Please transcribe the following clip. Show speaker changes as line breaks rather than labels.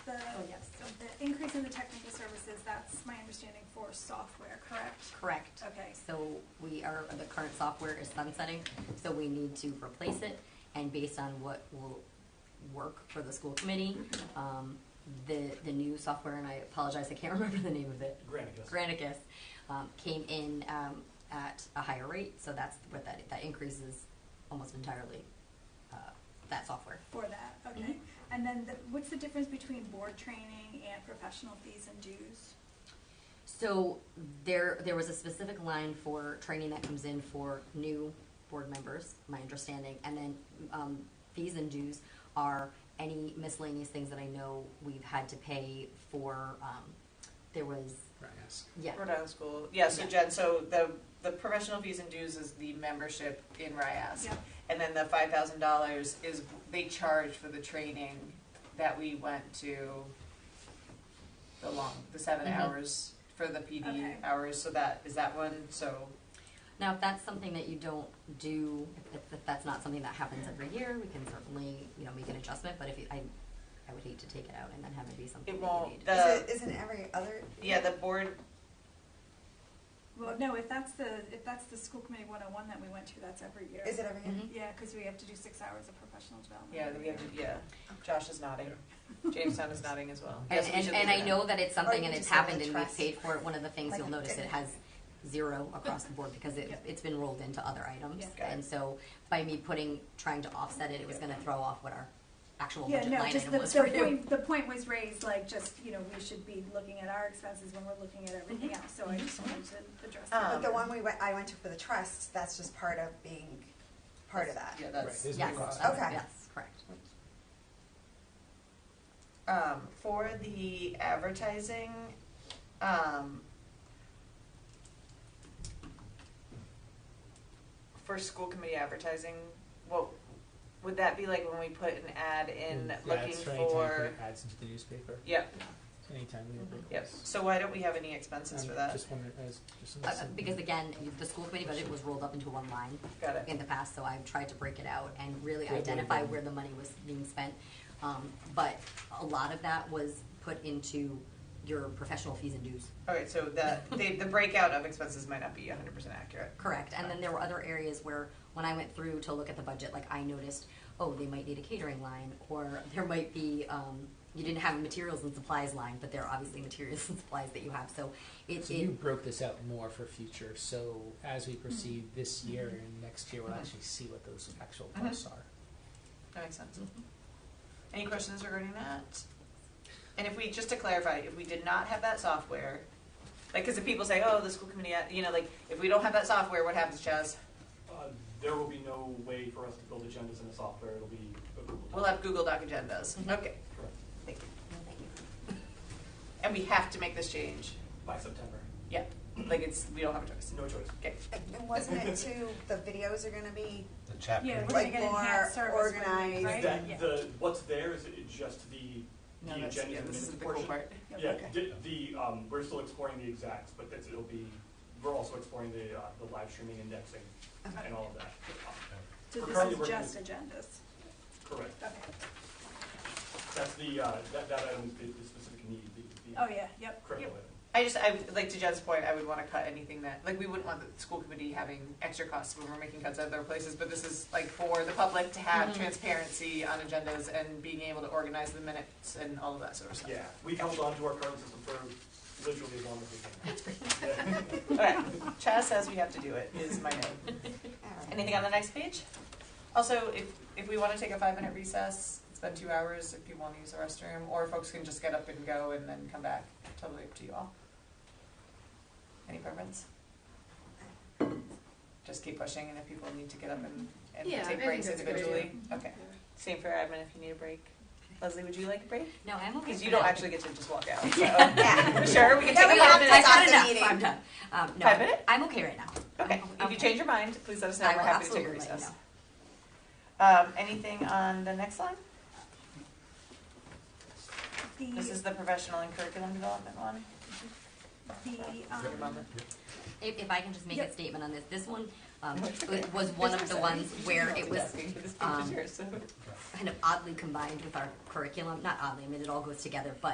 Oh,
it's in the technical services, that's my understanding for software, correct?
Correct.
Okay.
So we are, the current software is sunsetting, so we need to replace it, and based on what will work for the school committee, um, the, the new software, and I apologize, I can't remember the name of it.
Granicus.
Granicus, um, came in, um, at a higher rate, so that's what that, that increases almost entirely, uh, that software.
For that, okay.
Mm-hmm.
And then the, what's the difference between board training and professional fees and dues?
So there, there was a specific line for training that comes in for new board members, my understanding, and then um, fees and dues are any miscellaneous things that I know we've had to pay for. Um, there was, yeah,
Rhode Island School, yeah, so
Yeah.
Jen, so the, the professional fees and dues is the membership in RIAS.
Yeah.
And then the five thousand dollars is, they charge for the training that we went to the long, the seven
Mhm.
hours for the
Okay.
PD hours, so that, is that one, so,
now if that's something that you don't do, if, if that's not something that happens every year, we can certainly, you know, make an adjustment, but if you, I, I would hate to take it out and then have it be something
It
that you
won't.
need.
The-
Is it, isn't every other?
yeah, the board,
Well, no, if that's the, if that's the school committee one oh one that we went to, that's every year.
Is it every? Mm-hmm.
Mhm.
Yeah, cause we have to do six hours of professional development.
yeah,
every
we have
year.
to, yeah, Josh is nodding, Jamestown is nodding as well.
And,
Yes, we
and,
should
and
leave
I
it in.
know that it's something
you
and
just
it's
have
happened
the
and we've
trust.
paid for it. One of the things
Like
you'll
a
notice it
good-
has zero across the board because it,
Yep.
it's been rolled into other items.
Yeah.
Got it.
And so by me putting, trying to offset it, it was gonna throw off what our actual
Yeah,
budget
no,
line
just
item
the,
was for
the
you.
point, the point was raised, like, just, you know, we should be looking at our expenses when we're looking at
Mm-hmm.
everything else, so I just wanted to address that.
But the
Um,
one we went, I went to for the trust, that's just part of being part of that.
Yeah,
Right,
that's.
there's no
Yes,
cost.
that's-
Okay.
yes, correct.
um, for the advertising, um, for school committee advertising, what, would that be like when we put an ad in
Yeah,
looking
it's anytime
for?
putting Ads into the newspaper,
Yep,
anytime we have.
yep, so why don't we have any expenses
I'm
for that?
Um, Just wondering, as, just.
Uh,
something-
Because again, the school committee budget was rolled up into one line.
Got it,
in the past, so I've tried to break it out and really
Yeah,
identify
yeah.
where the money was being spent. Um, but a lot of that was put into your professional fees and dues.
okay, so the, the, the breakout of expenses might not be hundred percent accurate.
Correct. And then there were other areas where, when I went through to look at the budget, like I noticed, oh, they might need a catering line, or there might be, um, you didn't have a materials and supplies line, but there are obviously materials and supplies that you have, so it,
So you
it,
broke this out more for future, so as we proceed this year and next year, we'll
Mm-hmm.
actually see what those actual
Mhm.
costs are.
That makes sense. Any questions regarding that? And if we, just to clarify, if we did not have that software, like, because if people say, oh, the school committee, ad-" you know, like, if we don't have that software, what happens, Chaz?
Uh, There will be no way for us to build agendas in the software, it'll be a Google.
Oh.
We'll have Google Doc agendas. Okay,
Doc, correct,
thank you. And we have to make this change.
By September,
Yeah, like it's, we don't have a choice.
no choice.
Okay,
And- And wasn't it too, the videos are gonna be,
The chapter.
Yeah, we're gonna
Like
get
more
enhanced service, when we-
organized
right?
That-
Yeah.
the, what's there is it just the, the
no, that's,
agendas
yeah,
and
this is
minutes
the cool
portion.
part.
Yeah,
Okay.
di- the, um, we're still exploring the exacts, but that's, it'll be, we're also exploring the, uh, the live streaming indexing and all of that.
So
we're
this
currently
is
working
just agendas,
Correct,
okay,
that's the, uh, that, that item, the, the specific need, the,
oh,
the
yeah, yep,
critical item.
I just, I, like to Jen's point, I would wanna cut anything that, like, we wouldn't want the school committee having extra costs when we're making cuts at other places, but this is like for the public to have transparency on agendas and being able to organize the minutes and all of that sort of stuff.
Yeah, we've held on to our current system for literally as long as we can.
Okay, Chaz says we have to do it, is my note. Anything on the next page? Also, if, if we wanna take a five-minute recess, it's been two hours, if people wanna use the restroom, or folks can just get up and go and then come back, totally up to you all. Any preference? Just keep pushing, and if people need to get up and, and
Yeah, I
take
think
breaks
that's a good
individually, okay. Same for admin if you need a break. Leslie, would you like a break?
no, I'm okay
Because you
for
don't
now.
actually get to just walk out, so.
Yeah.
Sure, we can
Yeah,
take a
we
five
have to
minute.
talk
I'm
the
done,
meeting.
I'm done. Um, no,
Five minute?
I'm okay right now.
Okay,
I'm-
if
okay.
you change your mind, please let us know,
I
we're
will
happy to take a
absolutely let you
recess.
know.
Um, anything on the next line? This is
the,
the professional and curriculum development one.
the,
Your
um,
mama.
If, if I can just make
Yep.
a statement on this, this one um,
That's
was- was one of the ones where it was
Multitasking, This page is
um,
yours, so.
kind of oddly combined with our curriculum. Not oddly, I mean, it all goes together, but